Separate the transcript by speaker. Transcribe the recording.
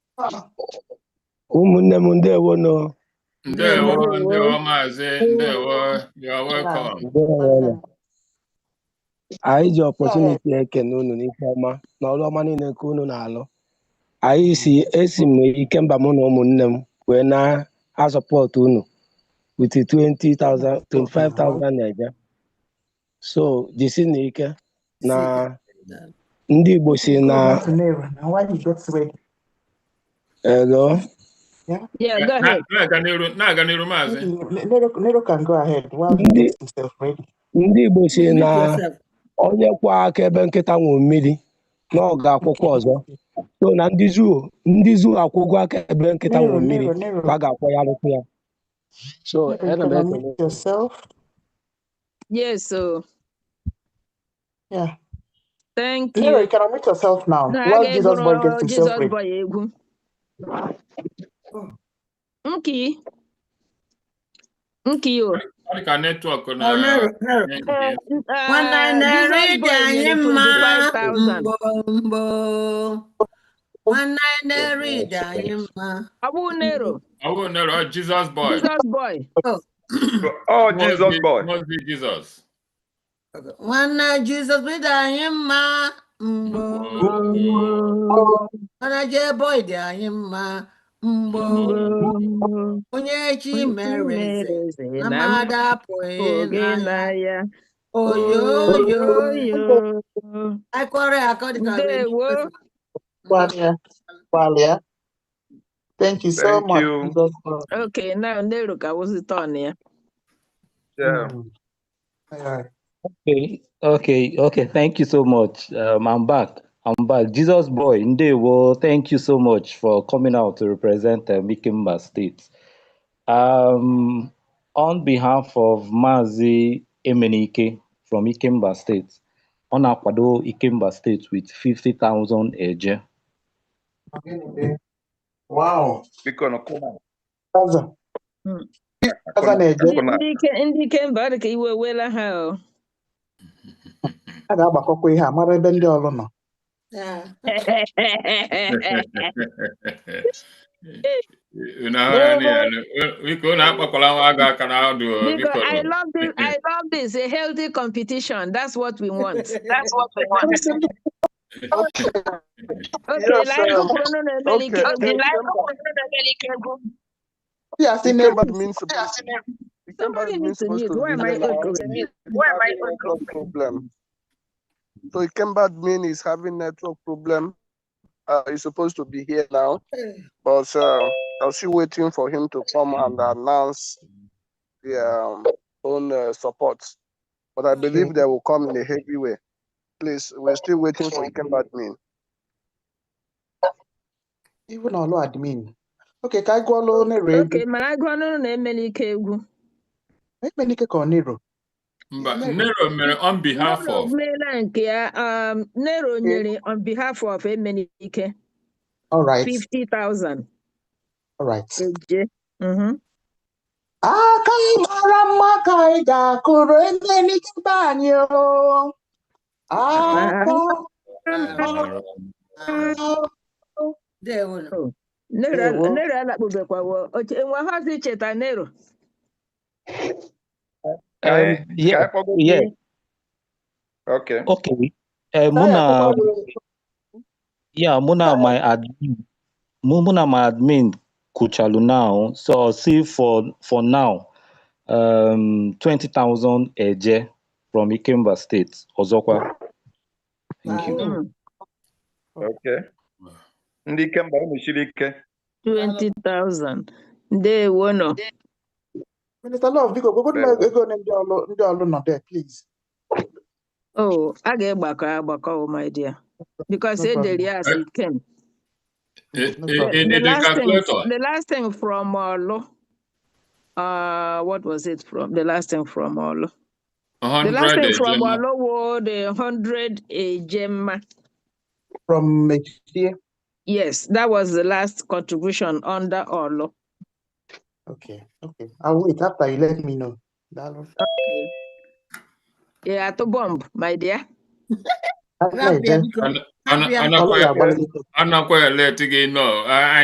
Speaker 1: ụmụnne m ndewonụ
Speaker 2: Ndewo,
Speaker 3: Ndewo.
Speaker 2: ndewo maazị, ndewo, you are welcome.
Speaker 1: ndewonụ anyị ji ọpọtuniti ekene unu n'ife ọma na ọrụ ọma niile nke unu na-alụ anyị si esi m ike mba mụ na ụmụnne m wee na-azọpọtụ unu with 20,000 25,000 naija so jisi na ike na ndị Igbo si na elo
Speaker 3: Yeah, go
Speaker 2: Na-
Speaker 3: ahead.
Speaker 2: Na-aga n'iru, na-aga n'iru maazị.
Speaker 4: Nero can go ahead while he
Speaker 1: ndị
Speaker 4: gets himself ready.
Speaker 1: ndị Igbo si na onye kwa aka ebe nkịta nwụ mmiri na ọ ga-akwụkwọ ọzọ so na ndị zoo ndị zoo akwụgo aka ebe nkịta nwụ
Speaker 4: Nero,
Speaker 1: mmiri
Speaker 4: Nero, Nero,
Speaker 1: ka a ga-akwọ ya arụkwụ ya so
Speaker 4: Nero, you
Speaker 1: ana
Speaker 4: can
Speaker 1: m ekele
Speaker 4: unmute yourself.
Speaker 3: Yes, so
Speaker 4: Yeah.
Speaker 3: thank
Speaker 4: Nero, you
Speaker 3: you.
Speaker 4: can unmute yourself now
Speaker 3: Na
Speaker 4: while
Speaker 3: aga
Speaker 4: Jesus boy
Speaker 3: egwuru
Speaker 4: gets himself
Speaker 3: Jizọs
Speaker 4: ready.
Speaker 3: boy egwu. Nki. Nki o.
Speaker 2: Ọ dị ka netwọk na.
Speaker 5: Oh,
Speaker 3: Oh, Eh, eh,
Speaker 5: Nwana narị
Speaker 3: Jizọs
Speaker 5: dị
Speaker 3: boy
Speaker 5: anyị
Speaker 3: nyere
Speaker 5: mma
Speaker 3: 25,000.
Speaker 5: mgbo mgbo. Nwana narị dị anyị mma.
Speaker 3: Ọ bụ Nero,
Speaker 2: Ọ bụ Nero, ọ Jesus boy.
Speaker 3: Jizọs boy.
Speaker 6: Oh,
Speaker 2: Must
Speaker 6: Jesus
Speaker 2: be-
Speaker 6: boy.
Speaker 2: Must be Jesus.
Speaker 5: Nwana Jizọs dị anyị mma mgbo. Nwana Jeboy dị anyị mma mgbo. Onye chi mere eze na mmadụ apụghị
Speaker 3: Oge
Speaker 5: e, na ya.
Speaker 3: na-aya.
Speaker 5: Oyo oyo
Speaker 3: Oyo.
Speaker 5: akọrọ akọ dịka
Speaker 3: Ndewo.
Speaker 5: Mm,
Speaker 4: Gwalia, Gwalia. Thank you so
Speaker 6: Thank
Speaker 4: much,
Speaker 6: you.
Speaker 4: Jesus boy.
Speaker 3: Okay, now Nero ka wụzi tọn ya.
Speaker 6: Yeah.
Speaker 4: Mm. All right.
Speaker 7: Okay, okay, okay. Thank you so much. Um, I'm back. I'm back. Jesus boy, Ndewo, thank you so much for coming out to represent uh, Mikimba State. Um, on behalf of Mazi Emenike from Ikimba State, on Akwado Ikimba State with 50,000 eje.
Speaker 4: Wow.
Speaker 6: Biko na ọkụ
Speaker 4: Kaza,
Speaker 3: Mm.
Speaker 4: Kaza na-eje,
Speaker 3: Ndị
Speaker 6: Ọbụna.
Speaker 3: ndị ike ndị ike mba ọ dị ka iwe wela ha o.
Speaker 4: a ga-agbakọkwa ihe a mara ebe ndị ọlụ nọ.
Speaker 5: Ah,
Speaker 2: Unu ahụghị ya, biko unu akpakwala nwa agụ aka na ọdụ. o,
Speaker 3: Because
Speaker 2: biko.
Speaker 3: I love this, I love this, a healthy competition. That's what we want. That's what we want. Okay,
Speaker 4: Yes,
Speaker 3: like oh,
Speaker 4: um,
Speaker 3: ụfọdụ na-emeli ike egwu. Like ụfọdụ na-emeli ike egwu.
Speaker 8: Okay, Ikemba.
Speaker 4: Ndị a sị na-egwu
Speaker 8: Ikemba means supposed to
Speaker 3: Somebody needs
Speaker 8: Ikemba means
Speaker 3: to
Speaker 8: supposed
Speaker 3: mute.
Speaker 8: to
Speaker 3: Why
Speaker 8: be
Speaker 3: am I echoing?
Speaker 8: having
Speaker 3: Why am I
Speaker 8: network
Speaker 3: echoing?
Speaker 8: problem. So Ikemba mean is having network problem. Uh, he's supposed to be here now, but uh, I'm still waiting for him to come and announce the um, own uh, support. But I believe they will come in a heavy way. Please, we're still waiting for Ikemba admin.
Speaker 4: iwu na ọlụ admin. Ok, ka anyị gụọlụ Nero egwu.
Speaker 3: Okay, mana agụ ọnụ na-emeli ike egwu.
Speaker 4: Ekpenike ka ọ Nero.
Speaker 2: Mba, Nero mere on behalf
Speaker 3: Nero
Speaker 2: of.
Speaker 3: meela nke ya, um, Nero nyere on behalf of emeli ike
Speaker 4: All right,
Speaker 3: 50,000.
Speaker 4: all right.
Speaker 3: Eje. Mhm.
Speaker 4: Aka anyị mara mma ka anyị ga-akụrụ Ekpenike be anyị o. Aka
Speaker 5: Ndewo.
Speaker 3: Nero
Speaker 4: Ndewo.
Speaker 3: Nero alakpubekwawo. Oche- Enwe ahụzi cheta Nero.
Speaker 6: Ka
Speaker 7: Um,
Speaker 6: anyị- ka
Speaker 7: yeah,
Speaker 6: anyị kpọgo
Speaker 7: yeah,
Speaker 6: Okay.
Speaker 7: okay. Um,
Speaker 4: ka anyị
Speaker 7: Muna,
Speaker 4: akpọkwa
Speaker 7: yeah, Muna, my admin Mu- mụ na my admin kuchalu now so I'll see for for now um 20,000 eje from Ikemba State ọzọkwa thank you
Speaker 3: Mm.
Speaker 6: Okay. Ndị Ikemba unu siri ike.
Speaker 3: 20,000. Ndewo nọ.
Speaker 4: Minista Love, biko gogodu m ego ole ndị ọlụ ndị ọlụ nọ there, please.
Speaker 3: Oh, a ga-agbakọ agbakọ, oh my dear. Because
Speaker 4: No
Speaker 3: e
Speaker 4: problem.
Speaker 3: dere ya as it came.
Speaker 2: E-
Speaker 4: No
Speaker 2: e-
Speaker 4: problem.
Speaker 2: e-
Speaker 3: The
Speaker 2: Ede
Speaker 3: last thing,
Speaker 2: calculator.
Speaker 3: the last thing from Olu, uh, what was it from? The last thing from Olu. The last
Speaker 2: 100
Speaker 3: thing from
Speaker 2: ejema.
Speaker 3: Olu was the 100 Ejema.
Speaker 4: From Mechie.
Speaker 3: Yes, that was the last contribution under Olu.
Speaker 4: Okay, okay. I'll wait after you let me know. Daalụ.
Speaker 3: Okay. Yeah, to bomb, my dear.
Speaker 4: After
Speaker 5: Grab
Speaker 4: eje,
Speaker 5: their
Speaker 2: Ana-
Speaker 5: Happy
Speaker 2: ana-
Speaker 5: and
Speaker 2: anakwa
Speaker 4: ọlụ
Speaker 2: ya-
Speaker 4: ga-agbalị gị.
Speaker 2: anakwa eleti gị nọ.